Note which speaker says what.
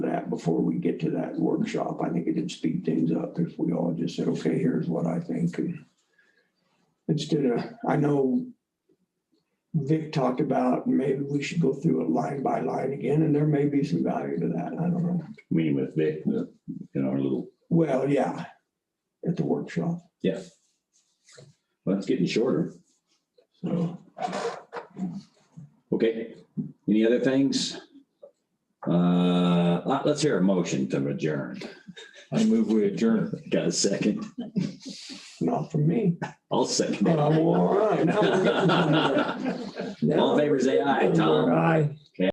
Speaker 1: before we get to that workshop. I think it'd speed things up if we all just said, okay, here's what I think. and Instead of, I know Vic talked about maybe we should go through it line by line again, and there may be some value to that. I don't know.
Speaker 2: meeting with Vic, the- in our little,
Speaker 1: Well, yeah, at the workshop.
Speaker 2: yeah. Well, it's getting shorter.
Speaker 1: So
Speaker 2: Okay, any other things? Uh, let- let's hear a motion to adjourn.
Speaker 3: I move we adjourn.
Speaker 2: Got a second?
Speaker 1: not from me.
Speaker 2: I'll second.
Speaker 1: But
Speaker 3: Oh,
Speaker 2: it.
Speaker 1: I'm all right. Now we're getting somewhere.
Speaker 2: All in favor, say aye. Tom?
Speaker 1: Aye.